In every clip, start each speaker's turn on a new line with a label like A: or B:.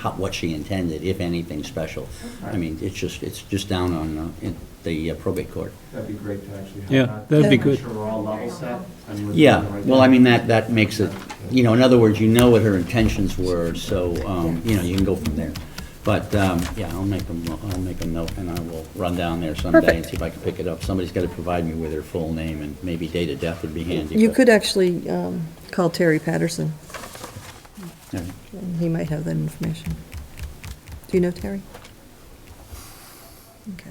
A: how, what she intended, if anything special. I mean, it's just, it's just down on, uh, in the probate court.
B: That'd be great to actually have that.
C: Yeah, that'd be
B: Make
C: good.
B: sure we're all level set. and we're
A: Yeah,
B: doing the right
A: well, I
B: thing.
A: mean, that, that makes it, you know, in other words, you know what her intentions were, so, um, you know, you can go from there. But, um, yeah, I'll make them, I'll make a note, and I will run down there someday and
D: Perfect.
A: see if I can pick it up. Somebody's gotta provide me with her full name, and maybe date of death would be handy.
D: You
A: but-
D: could actually um, call Terry Patterson,
A: All right.
D: and he might have that information. Do you know Terry? Okay.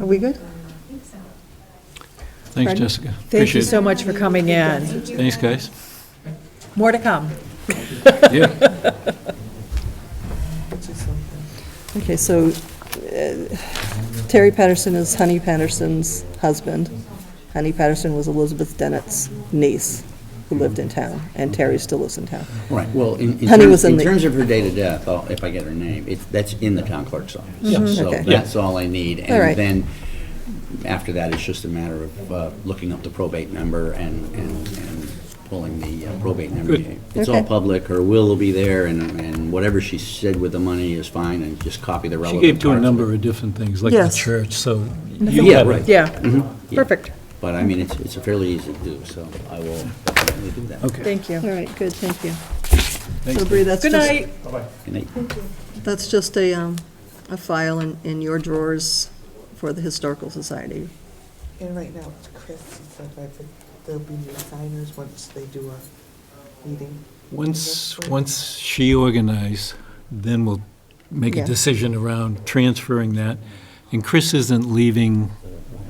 D: Are we good?
C: Thanks,
D: Pardon?
C: Jessica.
E: Thank you
C: Appreciate
E: so
C: it.
E: much for coming in.
C: Thanks, guys.
E: More to come.
C: Yeah.
D: Okay, so uh, Terry Patterson is Honey Patterson's husband. Honey Patterson was Elizabeth Dennett's niece, who lived in town, and Terry still lives in town.
A: Right, well, in, in
D: Honey was
A: terms,
D: in
A: in
D: the-
A: terms of her date of death, I'll- if I get her name, it's, that's in the town clerk's office. So
D: Mm-hmm, Okay.
A: that's all I need.
D: All right.
A: And then, after that, it's just a matter of uh, looking up the probate number and, and and pulling the uh, probate number.
C: Good.
A: It's all
D: Okay.
A: public, her will will be there, and, and whatever she said with the money is fine, and just copy the
C: She
A: relevant
C: gave to a
A: parts of it.
C: number of different things, like the
D: Yes.
C: church, so you
A: Yeah,
C: have
A: right.
C: it.
E: Yeah,
A: Yeah.
E: perfect.
A: But I mean, it's, it's fairly easy to do, so I will definitely do that.
C: Okay.
E: Thank you.
D: All right, good, thank you.
C: Thanks,
D: So Bree, that's
E: Good
D: just...
E: night.
A: Good night.
D: That's just a, um, a file in, in your drawers for the Historical Society.
F: And right now, Chris said that the- there'll be new signers once they do a meeting.
C: Once, once she organizes, then we'll make
D: Yeah.
C: a decision around transferring that. And Chris isn't leaving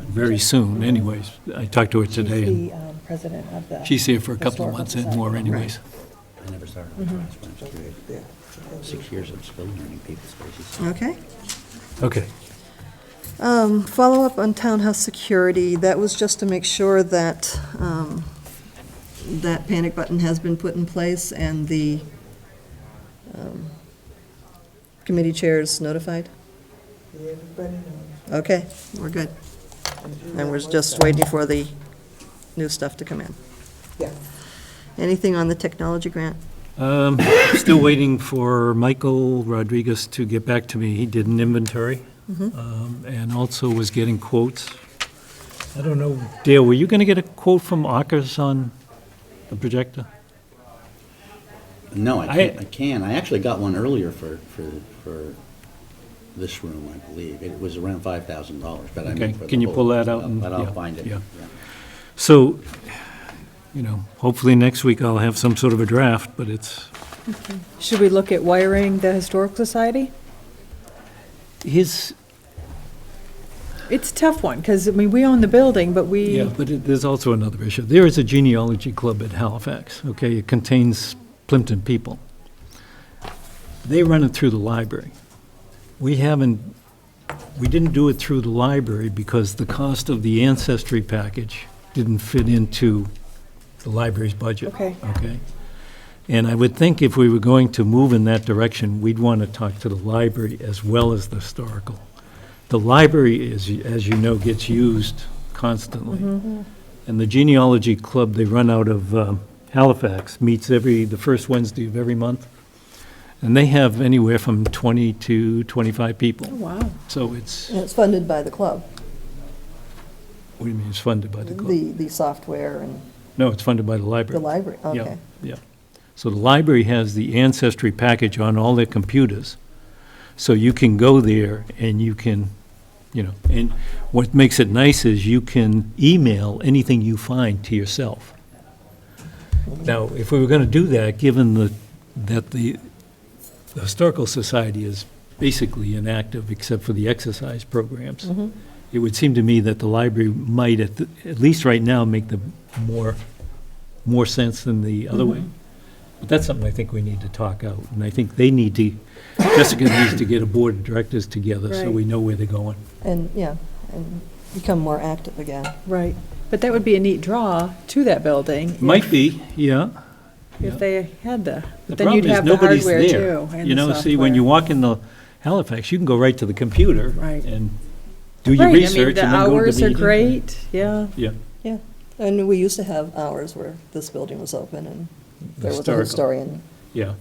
C: very soon anyways. I talked to her today, and
D: um,
E: president of
D: uh,
E: the.
C: she's here for a couple of months and more anyways.
A: I never started on class when I was three.
F: Yeah, so that'll be-
A: Six years, I'm still learning people's faces.
D: Okay.
C: Okay.
D: Um, follow-up on townhouse security, that was just to make sure that, um, that panic button has been put in place and the, um, committee chairs notified?
F: Everybody knows.
D: Okay, we're good.
F: you
D: And we're
F: know
D: just
F: what's up.
D: waiting for the new stuff to come in.
F: Yeah.
D: Anything on the technology grant?
C: Um, Still waiting for Michael Rodriguez to get back to me. He did an inventory um, and also was getting quotes. I don't know, Dale, were you going to get a quote from Akers on the projector?
A: No, I
C: I-
A: can't, I can. I actually got one earlier for, for, for this room, I believe. It was around five thousand dollars, but I
C: Okay,
A: mean for the
C: can you
A: whole-
C: pull that out
A: but
C: and-
A: I'll- But
C: yeah,
A: I'll find it,
C: yeah.
A: yeah.
C: So, you know, hopefully next week I'll have some sort of a draft, but it's,
E: Should we look at wiring the Historical Society?
C: his,
E: It's a tough one, because, I mean, we own the building, but
C: yeah,
E: we,
C: but it- there's also another issue. There is a genealogy club at Halifax, okay? It contains Plimpton people. They run it through the library. We haven't, we didn't do it through the library because the cost of the ancestry package didn't fit into the library's budget.
E: Okay.
C: Okay? And I would think if we were going to move in that direction, we'd want to talk to the library as well as the historical. The library is, as you know, gets used constantly. And the genealogy club, they run out of um, Halifax, meets every, the first Wednesday of every month. And they have anywhere from 20 to 25 people.
E: Oh, wow,
C: So it's,
D: And it's funded by the club,
C: what do you mean, it's funded by the club?
D: the, the software and
C: No, it's funded by the
D: the
C: library.
D: library,
C: Yeah,
D: okay.
C: Yeah. So the library has the ancestry package on all their computers. So you can go there and you can, you know, and what makes it nice is you can email anything you find to yourself. Now, if we were going to do that, given the, that the the Historical Society is basically inactive except for the exercise programs, it would seem to me that the library might, at, the- at least right now, make the more more sense than the other way. But that's something I think we need to talk out, and I think they need to, Jessica needs to get a board of directors together so
E: Right.
C: we know where they're going.
D: And, yeah, and become more active again.
E: right. But that would be a neat draw to that building.
C: Might be, yeah.
E: If they had the,
C: The
E: but then
C: problem
E: you'd
C: is
E: have the
C: nobody's
E: hardware
C: there.
E: too. and
C: You
E: the
C: know, see, when
E: software.
C: you walk in the Halifax, you can go right to the computer
E: Right.
C: and do your
E: Right, I mean,
C: research and then
E: The
C: go to the
E: hours are
C: meeting.
E: great, yeah.
C: Yeah.
D: And we used to have hours where this building was open and there was a
C: Historical.
D: historian
C: yeah.